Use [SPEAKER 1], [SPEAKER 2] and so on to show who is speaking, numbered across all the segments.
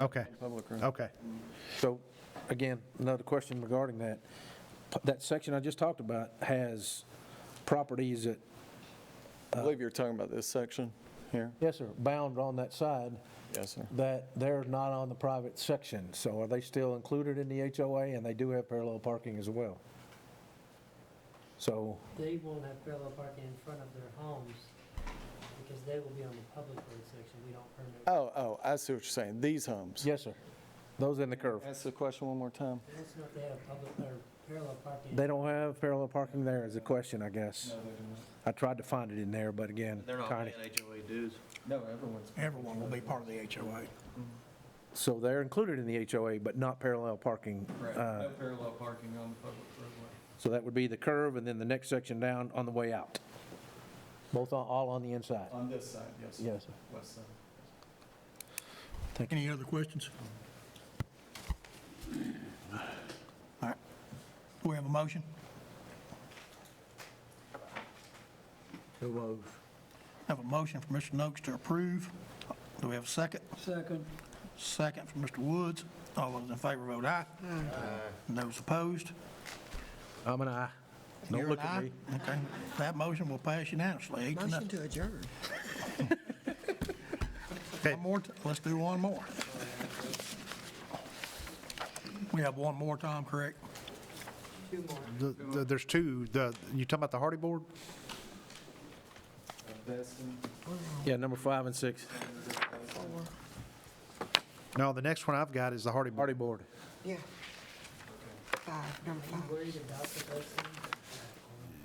[SPEAKER 1] Okay,
[SPEAKER 2] Public room.
[SPEAKER 3] Oh.
[SPEAKER 1] okay.
[SPEAKER 3] So, again, another question regarding that. P- That section I just talked about has properties that,
[SPEAKER 2] I believe you're talking about this section here.
[SPEAKER 3] yes, sir, bound on that side
[SPEAKER 2] Yes, sir.
[SPEAKER 3] that they're not on the private section. So are they still included in the HOA? And they do have parallel parking as well. So,
[SPEAKER 4] They won't have parallel parking in front of their homes because they will be on the public road section. We don't permit.
[SPEAKER 2] Oh, oh, I see what you're saying. These homes.
[SPEAKER 3] yes, sir, those in the curve.
[SPEAKER 2] Ask the question one more time.
[SPEAKER 4] I don't know if they have public or parallel parking.
[SPEAKER 3] They don't have parallel parking there is a question, I guess. I tried to find it in there, but again,
[SPEAKER 5] They're not
[SPEAKER 3] tiny.
[SPEAKER 5] paying HOA dues.
[SPEAKER 6] Everyone will be part of the HOA.
[SPEAKER 3] So they're included in the HOA, but not parallel parking. uh,
[SPEAKER 5] parallel parking on the public roadway.
[SPEAKER 3] So that would be the curve and then the next section down on the way out. Both, on- all on the inside.
[SPEAKER 2] On this side, yes.
[SPEAKER 3] Yes, sir.
[SPEAKER 2] West side.
[SPEAKER 6] Any other questions? All right. Do we have a motion? Have a motion for Mr. Noakes to approve. Do we have a second?
[SPEAKER 4] Second.
[SPEAKER 6] Second for Mr. Woods. All those in favor vote aye. Aye. Those opposed?
[SPEAKER 3] I'm an aye. Don't
[SPEAKER 6] You're
[SPEAKER 3] look
[SPEAKER 6] an
[SPEAKER 3] at
[SPEAKER 6] aye?
[SPEAKER 3] me.
[SPEAKER 6] Okay. That motion will pass unanimously, eight to
[SPEAKER 7] Motion
[SPEAKER 6] nothing.
[SPEAKER 7] to adjourn.
[SPEAKER 6] One more, t- let's do one more. We have one more, Tom, correct?
[SPEAKER 4] Two more.
[SPEAKER 1] The- the- There's two, the, you talking about the Hardy Board?
[SPEAKER 3] Yeah, number five and six,
[SPEAKER 1] No, the next one I've got is the Hardy Board.
[SPEAKER 3] party board.
[SPEAKER 7] Yeah. Five, number five.
[SPEAKER 4] Worried about the person?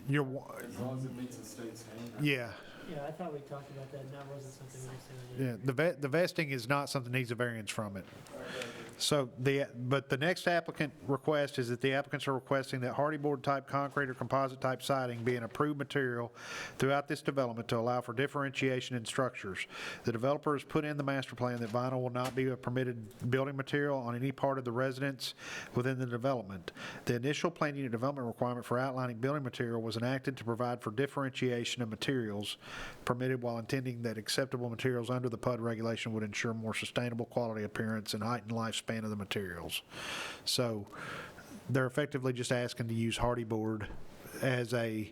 [SPEAKER 1] You're. As long as it meets the state's Yeah,
[SPEAKER 4] Yeah, I thought we talked about that and that wasn't something we said.
[SPEAKER 1] yeah. The ve- the vesting is not something that needs a variance from it. So the, but the next applicant request is that the applicants are requesting that Hardy Board type concrete or composite type siding be an approved material throughout this development to allow for differentiation in structures. The developer has put in the master plan that vinyl will not be a permitted building material on any part of the residence within the development. The initial plan unit development requirement for outlining building material was enacted to provide for differentiation of materials permitted while intending that acceptable materials under the PUD regulation would ensure more sustainable quality appearance and heightened lifespan of the materials. So they're effectively just asking to use hardy board as a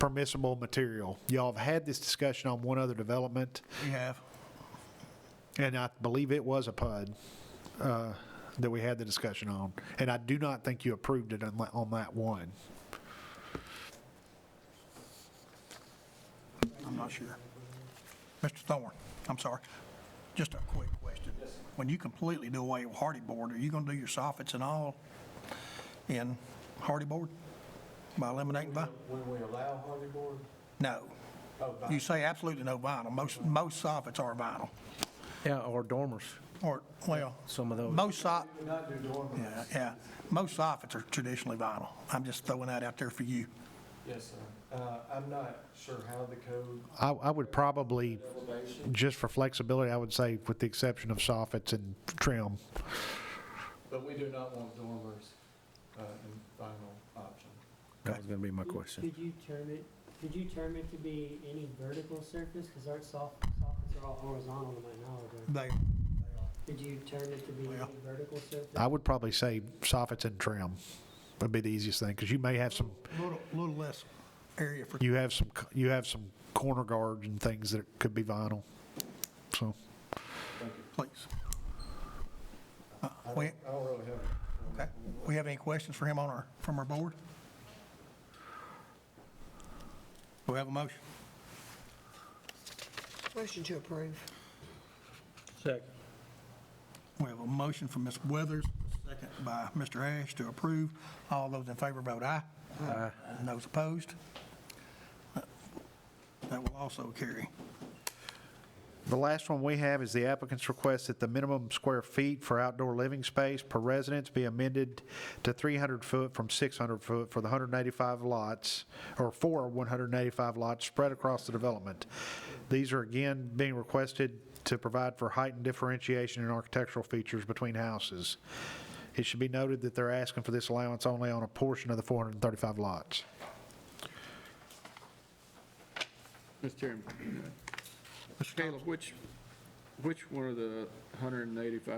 [SPEAKER 1] permissible material. Y'all have had this discussion on one other development,
[SPEAKER 6] We have.
[SPEAKER 1] and I believe it was a PUD uh, that we had the discussion on. And I do not think you approved it on on that one.
[SPEAKER 6] I'm not sure. Mr. Thorne, I'm sorry, just a quick question. When you completely do away with hardy board, are you going to do your soffits and all in hardy board? By eliminating vinyl?
[SPEAKER 8] When we allow hardy board? Oh,
[SPEAKER 6] No. You say absolutely no vinyl. Most, most soffits are vinyl.
[SPEAKER 3] Yeah, or dormers,
[SPEAKER 6] Or, well,
[SPEAKER 3] some of those.
[SPEAKER 6] most soffits.
[SPEAKER 8] Not do dormers.
[SPEAKER 6] Yeah, yeah. Most soffits are traditionally vinyl. I'm just throwing that out there for you.
[SPEAKER 8] Yes, sir. Uh, I'm not sure how the code
[SPEAKER 1] I, I would probably,
[SPEAKER 8] elevation,
[SPEAKER 1] just for flexibility, I would say with the exception of soffits and trim.
[SPEAKER 8] but we do not want dormers, uh, in final option.
[SPEAKER 3] That was gonna be my question.
[SPEAKER 4] Could you term it, could you term it to be any vertical surface? Because aren't soft, soffits are all horizontal to my knowledge. aren't
[SPEAKER 6] They,
[SPEAKER 4] they? Could you term it to be
[SPEAKER 6] Well-
[SPEAKER 4] any vertical surface?
[SPEAKER 1] I would probably say soffits and trim would be the easiest thing, because you may have some,
[SPEAKER 6] little, little less area for,
[SPEAKER 1] you have some, you have some corner guards and things that could be vinyl. So,
[SPEAKER 6] please. Uh, We,
[SPEAKER 8] I don't really have
[SPEAKER 6] okay. We have any questions for him on our, from our board? Do we have a motion?
[SPEAKER 7] Motion to approve.
[SPEAKER 6] We have a motion from Ms. Weathers, second by Mr. Ash to approve. All those in favor vote aye. Aye. And those opposed? That will also carry.
[SPEAKER 1] The last one we have is the applicant's request that the minimum square feet for outdoor living space per residence be amended to 300 foot from 600 foot for the 185 lots, or for 185 lots spread across the development. These are again being requested to provide for heightened differentiation in architectural features between houses. It should be noted that they're asking for this allowance only on a portion of the 435 lots.
[SPEAKER 9] Mr. Chairman. Caleb, which, which one of the 185